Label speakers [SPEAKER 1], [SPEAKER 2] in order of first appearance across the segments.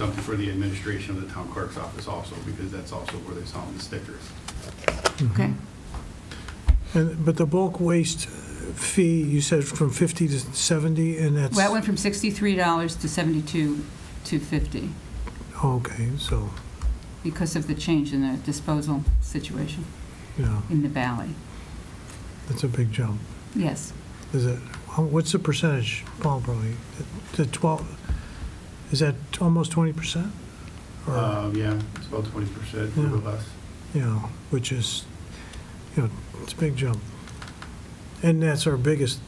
[SPEAKER 1] something for the administration of the town clerk's office also, because that's also where they sell the stickers.
[SPEAKER 2] Okay.
[SPEAKER 3] Mm-hmm. And- But the bulk waste fee, you said from 50 to 70, and that's...
[SPEAKER 2] Well, it went from $63 to 72 to 50
[SPEAKER 3] Okay, so,
[SPEAKER 2] because of the change in the disposal situation
[SPEAKER 3] yeah,
[SPEAKER 2] in the valley.
[SPEAKER 3] that's a big jump.
[SPEAKER 2] Yes.
[SPEAKER 3] Is it, how- what's the percentage, Paul, probably? The 12, is that almost 20%? Or,
[SPEAKER 1] Uh, yeah, it's about twenty percent, a little less.
[SPEAKER 3] you know, which is, you know, it's a big jump. And that's our biggest,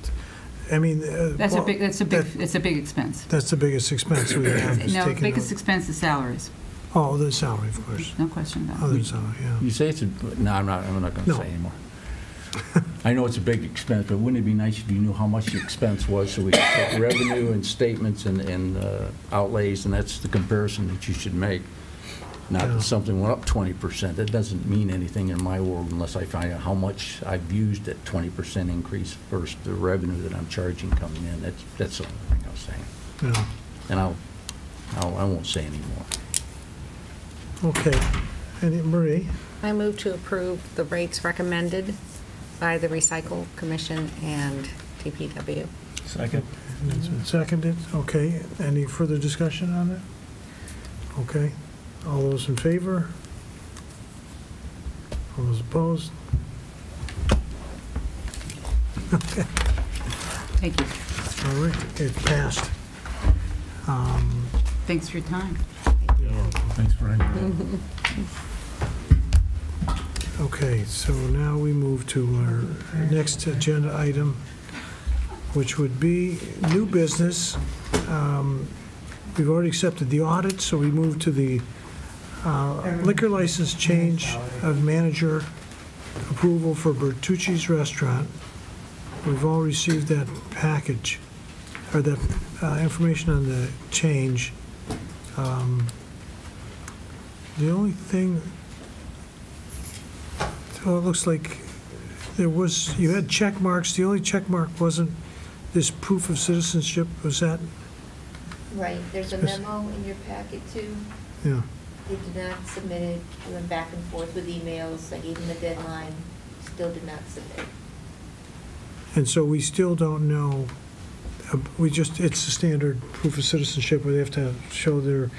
[SPEAKER 3] I mean... uh,
[SPEAKER 2] That's a
[SPEAKER 3] well,
[SPEAKER 2] big, that's a big,
[SPEAKER 3] that-
[SPEAKER 2] it's a big expense.
[SPEAKER 3] That's the biggest expense we have, is
[SPEAKER 2] No, the
[SPEAKER 3] taking
[SPEAKER 2] biggest
[SPEAKER 3] out...
[SPEAKER 2] expense is salaries,
[SPEAKER 3] Oh, the salary, of course.
[SPEAKER 2] no question about it.
[SPEAKER 3] Other salary, yeah.
[SPEAKER 2] Mm-hmm.
[SPEAKER 4] You say it's a, no, I'm not, I'm not going to
[SPEAKER 3] No.
[SPEAKER 4] say anymore. I know it's a big expense, but wouldn't it be nice if you knew how much the expense was, so we could take revenue and statements and, and uh, outlays, and that's the comparison that you should make. Not
[SPEAKER 3] Yeah.
[SPEAKER 4] that something went up 20%, that doesn't mean anything in my world unless I find out how much I've used that 20% increase versus the revenue that I'm charging coming in, that's, that's the only thing I was saying.
[SPEAKER 3] Yeah.
[SPEAKER 4] And I'll, I'll, I won't say anymore.
[SPEAKER 3] Okay. And Marie?
[SPEAKER 5] I move to approve the rates recommended by the Recycle Commission and DPW.
[SPEAKER 6] Second.
[SPEAKER 3] It's been seconded. Okay. Any further discussion on it? Okay. All those in favor? All those opposed?
[SPEAKER 2] Thank you.
[SPEAKER 3] All right, it passed. Um,
[SPEAKER 2] Thanks for your time.
[SPEAKER 6] Thanks, Brian.
[SPEAKER 3] Okay, so now we move to our next agenda item, which would be new business. Um, We've already accepted the audit, so we move to the uh, liquor license change of manager approval for Bertucci's Restaurant. We've all received that package, or that uh, information on the change. Um, The only thing so it looks like there was, you had check marks, the only check mark wasn't this proof of citizenship, was that?
[SPEAKER 7] Right, there's a
[SPEAKER 3] Yes.
[SPEAKER 7] memo in your packet too.
[SPEAKER 3] Yeah,
[SPEAKER 7] They did not submit it, I went back and forth with emails, I gave them a deadline, still did not submit it.
[SPEAKER 3] and so we still don't know, uh, we just, it's the standard proof of citizenship where they have to show their,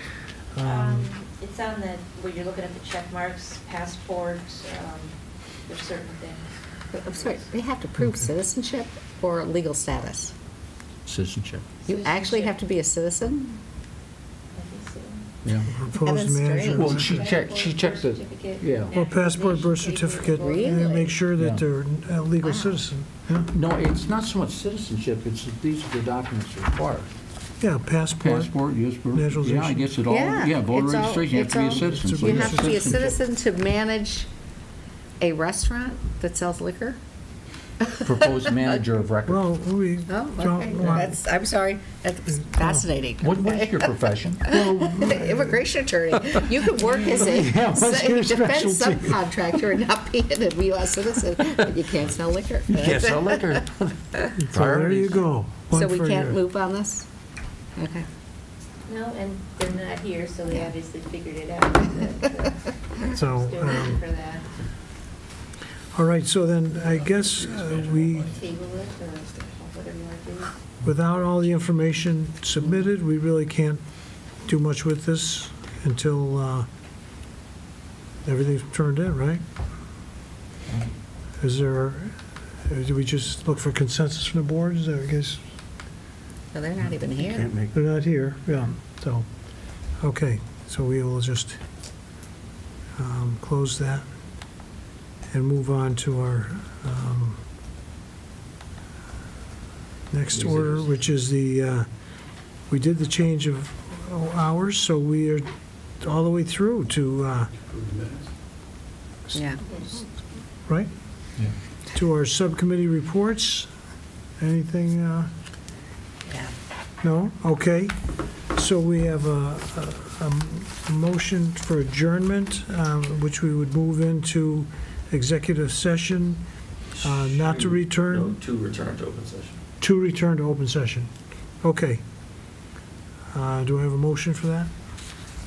[SPEAKER 3] um,
[SPEAKER 7] Um, It's on the, where you're looking at the check marks, passports, um, there's certain things.
[SPEAKER 5] I'm sorry, they have to prove citizenship or legal status?
[SPEAKER 4] Citizenship,
[SPEAKER 5] You actually have to be a citizen?
[SPEAKER 7] I think so.
[SPEAKER 4] yeah.
[SPEAKER 3] proposed
[SPEAKER 5] That's
[SPEAKER 3] manager.
[SPEAKER 5] strange.
[SPEAKER 4] Well, she checked,
[SPEAKER 7] Passport,
[SPEAKER 4] she checked
[SPEAKER 7] birth
[SPEAKER 4] the,
[SPEAKER 7] certificate,
[SPEAKER 4] yeah.
[SPEAKER 3] Or passport, birth
[SPEAKER 7] national
[SPEAKER 3] certificate,
[SPEAKER 5] Really?
[SPEAKER 3] and make sure that they're a legal
[SPEAKER 5] Wow.
[SPEAKER 3] citizen. Yeah,
[SPEAKER 4] No, it's not so much citizenship, it's that these are the documents required.
[SPEAKER 3] Yeah, passport.
[SPEAKER 4] Passport, yes, birth,
[SPEAKER 3] Naturalization.
[SPEAKER 4] yeah, I guess it all,
[SPEAKER 5] Yeah,
[SPEAKER 4] yeah, voter
[SPEAKER 5] it's all-
[SPEAKER 4] registration, you have to be a
[SPEAKER 5] it's all-
[SPEAKER 4] citizen. so
[SPEAKER 5] You
[SPEAKER 3] Yeah.
[SPEAKER 4] yes,
[SPEAKER 5] have to be a
[SPEAKER 4] citizenship.
[SPEAKER 5] citizen to manage a restaurant that sells liquor?
[SPEAKER 4] Proposed manager of record.
[SPEAKER 3] Well, we
[SPEAKER 5] Oh,
[SPEAKER 3] don't
[SPEAKER 5] okay,
[SPEAKER 3] want,
[SPEAKER 5] that's, I'm sorry, that was fascinating.
[SPEAKER 4] What was your profession?
[SPEAKER 5] Immigration attorney, you could work as a
[SPEAKER 4] Yeah, what's your
[SPEAKER 5] defense
[SPEAKER 4] specialty?
[SPEAKER 5] subcontractor and not be a U.S. citizen, but you can't sell liquor.
[SPEAKER 4] Yes, a liquor.
[SPEAKER 3] so there you go. One
[SPEAKER 5] So we
[SPEAKER 3] for
[SPEAKER 5] can't
[SPEAKER 3] your-
[SPEAKER 5] move on this? Okay.
[SPEAKER 7] No, and they're not here, so they obviously figured it out. uh, Still
[SPEAKER 3] So,
[SPEAKER 7] waiting
[SPEAKER 3] um,
[SPEAKER 7] for that.
[SPEAKER 3] all right, so then I guess uh, we
[SPEAKER 7] Table it or whatever you want to do.
[SPEAKER 3] without all the information submitted, we really can't do much with this until uh, everything's turned in, right? Is there, uh, do we just look for consensus from the board? Is there, I guess,
[SPEAKER 5] No, they're not even here.
[SPEAKER 6] Can't make,
[SPEAKER 3] they're not here, yeah, so, okay, so we will just um, close that and move on to our um, next order, which is the, uh, we did the change of hours, so we are all the way through to, uh,
[SPEAKER 1] Approve the minutes.
[SPEAKER 5] Yeah.
[SPEAKER 3] right?
[SPEAKER 6] Yeah.
[SPEAKER 3] To our subcommittee reports, anything? uh,
[SPEAKER 5] Yeah.
[SPEAKER 3] No? Okay. So we have a- a, a motion for adjournment, um, which we would move into executive session, uh, not to return,
[SPEAKER 8] No, to return to open session.
[SPEAKER 3] to return to open session. Okay. Uh, Do I have a motion for that?